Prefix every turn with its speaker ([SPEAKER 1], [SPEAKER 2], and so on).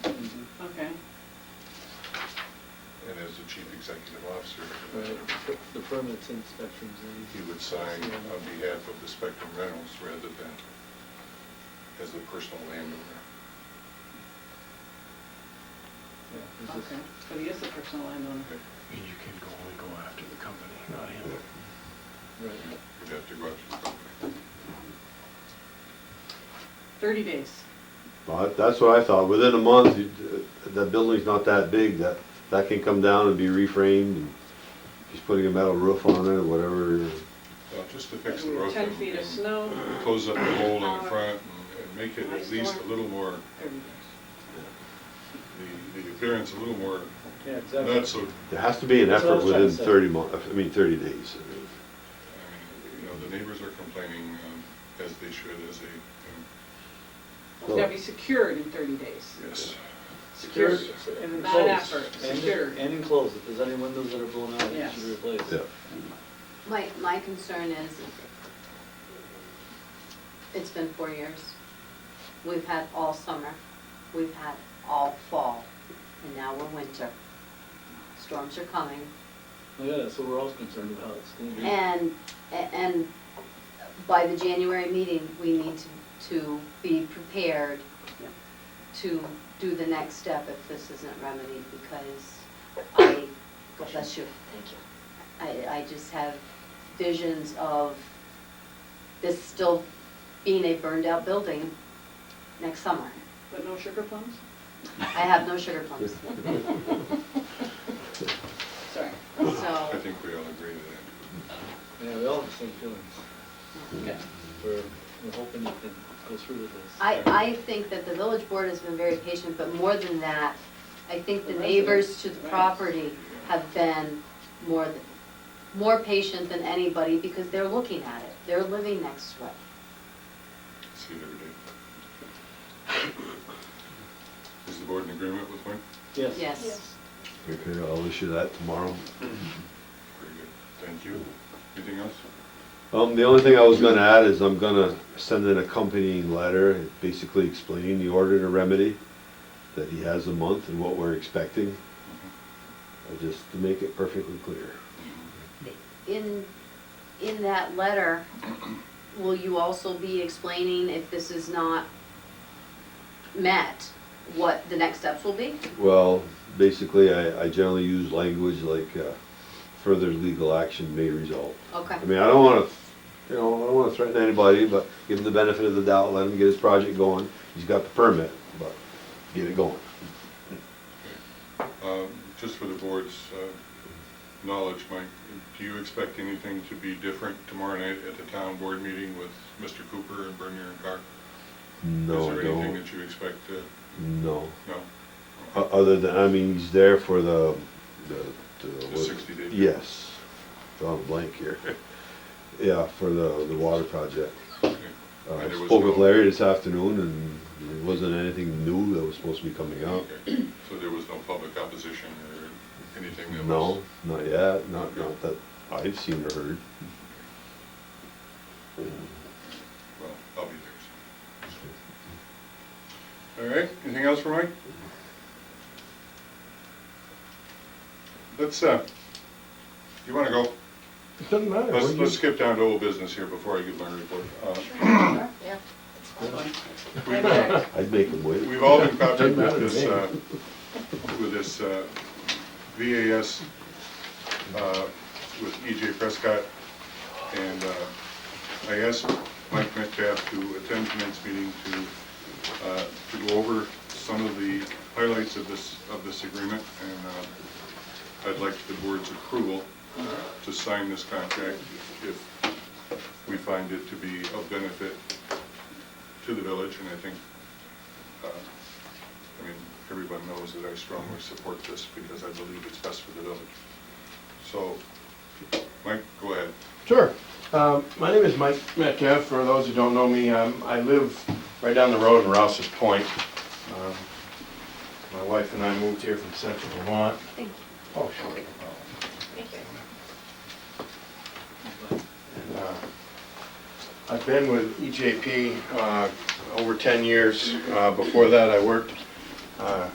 [SPEAKER 1] Mm-hmm.
[SPEAKER 2] chief executive officer,
[SPEAKER 1] Right, the- the permits and inspections. and-
[SPEAKER 2] he would sign
[SPEAKER 1] Yeah.
[SPEAKER 2] on behalf of the Spectrum Reynolds rather than as the personal landowner.
[SPEAKER 1] Yeah, is this-
[SPEAKER 3] Okay, but he is the personal landowner.
[SPEAKER 4] And you can go only go after the company, not him.
[SPEAKER 1] Right.
[SPEAKER 2] You'd have to go out to the company.
[SPEAKER 3] Thirty days.
[SPEAKER 5] Well, that- that's what I thought, within a month, you- the building's not that big, that, that can come down and be reframed, and just putting a metal roof on it, or whatever.
[SPEAKER 2] Well, just to fix the roof.
[SPEAKER 3] Ten
[SPEAKER 2] and-
[SPEAKER 3] feet of snow.
[SPEAKER 2] and Close up the hole in the front and- and make it at
[SPEAKER 3] Nice
[SPEAKER 2] least a
[SPEAKER 3] door.
[SPEAKER 2] little more,
[SPEAKER 3] Thirty days.
[SPEAKER 2] the, the appearance a little more,
[SPEAKER 1] Yeah, exactly.
[SPEAKER 2] not so
[SPEAKER 5] There has to be an
[SPEAKER 1] That's what I
[SPEAKER 5] effort
[SPEAKER 1] was trying to
[SPEAKER 5] within
[SPEAKER 1] say.
[SPEAKER 5] thirty mon, I mean, thirty days. I mean.
[SPEAKER 2] I mean, You know, the neighbors are complaining, um, as they should, as they, um,
[SPEAKER 3] It's gotta be secured in thirty days.
[SPEAKER 2] yes.
[SPEAKER 3] Secured,
[SPEAKER 1] And
[SPEAKER 3] not
[SPEAKER 1] enclosed.
[SPEAKER 3] effort,
[SPEAKER 1] And-
[SPEAKER 3] secured.
[SPEAKER 1] And enclosed, if there's any windows that are blown out, it
[SPEAKER 3] Yes.
[SPEAKER 1] should be replaced.
[SPEAKER 5] Yeah.
[SPEAKER 6] My, my concern is, it's been four years. We've had all summer, we've had all fall, and now we're winter. Storms are coming,
[SPEAKER 1] Yeah, so we're all concerned about it. It's gonna be-
[SPEAKER 6] and, and by the January meeting, we need to, to be prepared to do the next step if this isn't remedied, because I, God bless you. Thank you. I, I just have visions of this still being a burned-out building next summer.
[SPEAKER 3] But no sugar plums?
[SPEAKER 6] I have no sugar plums,
[SPEAKER 3] Sorry.
[SPEAKER 2] I
[SPEAKER 6] so,
[SPEAKER 2] think we all agree to that.
[SPEAKER 1] Yeah, we all have the same feelings.
[SPEAKER 3] Okay.
[SPEAKER 1] We're, we're hoping you can go through with this.
[SPEAKER 6] I, I think that the village board has been very patient, but more than that, I think the
[SPEAKER 3] The
[SPEAKER 6] neighbors
[SPEAKER 3] residents,
[SPEAKER 6] to the
[SPEAKER 3] right.
[SPEAKER 6] property have been more, th- more patient than anybody, because they're looking at it, they're living next to it.
[SPEAKER 2] See it every day. Is the board in agreement with Wayne?
[SPEAKER 1] Yes.
[SPEAKER 6] Yes.
[SPEAKER 5] Okay, I'll issue that tomorrow.
[SPEAKER 2] Very good. Thank you. Anything else?
[SPEAKER 5] Um, the only thing I was gonna add is I'm gonna send an accompanying letter, basically explaining the order to remedy, that he has a month and what we're expecting, uh, just to make it perfectly clear.
[SPEAKER 6] In, in that letter, will you also be explaining if this is not met, what the next steps will be?
[SPEAKER 5] Well, basically, I, I generally use language like, uh, further legal action may result.
[SPEAKER 6] Okay,
[SPEAKER 5] I mean, I don't wanna, you know, I don't wanna threaten anybody, but give him the benefit of the doubt, let him get his project going. He's got the permit, but get it going.
[SPEAKER 2] Um, Just for the board's uh, knowledge, Mike, do you expect anything to be different tomorrow night at the town board meeting with Mr. Cooper and Bernier and Carr?
[SPEAKER 5] No, I
[SPEAKER 2] Is there anything
[SPEAKER 5] don't, Uh,
[SPEAKER 2] that you expect to,
[SPEAKER 5] no.
[SPEAKER 2] no?
[SPEAKER 5] O- Other than, I mean, he's there for the, the.
[SPEAKER 2] The 60 day.
[SPEAKER 5] Yes. Drawing a blank here. Yeah, for the, the water project.
[SPEAKER 2] Okay.
[SPEAKER 5] Uh, I
[SPEAKER 2] And there was
[SPEAKER 5] spoke with
[SPEAKER 2] no-
[SPEAKER 5] Larry this afternoon and there wasn't anything new that was supposed to be coming out.
[SPEAKER 2] Okay. So there was no public opposition or anything that was?
[SPEAKER 5] No, not yet, not, not that I've seen or heard.
[SPEAKER 2] Well, I'll be there. so. All right, anything else for Mike? Let's, uh, you wanna go?
[SPEAKER 4] It doesn't matter.
[SPEAKER 2] Let's,
[SPEAKER 4] What
[SPEAKER 2] let's
[SPEAKER 4] you-
[SPEAKER 2] skip down to old business here before I give my report. Uh,
[SPEAKER 6] yeah.
[SPEAKER 2] We've, uh,
[SPEAKER 3] Okay.
[SPEAKER 5] I'd make him wait.
[SPEAKER 2] we've all been copied with
[SPEAKER 4] Doesn't matter to
[SPEAKER 2] this,
[SPEAKER 4] me.
[SPEAKER 2] uh, with this, uh, VAS, uh, with EJ Prescott. And, uh, I asked Mike Metcalf to attend tonight's meeting to, uh, to go over some of the highlights of this, of this agreement. And, uh, I'd like the board's approval to sign this contract if we find it to be of benefit to the village, and I think, uh, I mean, everyone knows that I strongly support this because I believe it's best for the village. So, Mike, go ahead.
[SPEAKER 4] Sure. Um, My name is Mike Metcalf. For those who don't know me, um, I live right down the road in Rouse's Point. Um, My wife and I moved here from central Vermont.
[SPEAKER 6] Thank you.
[SPEAKER 4] Oh, sure. And, uh, I've been with E EJP uh, over 10 years. Uh, Before that, I worked uh,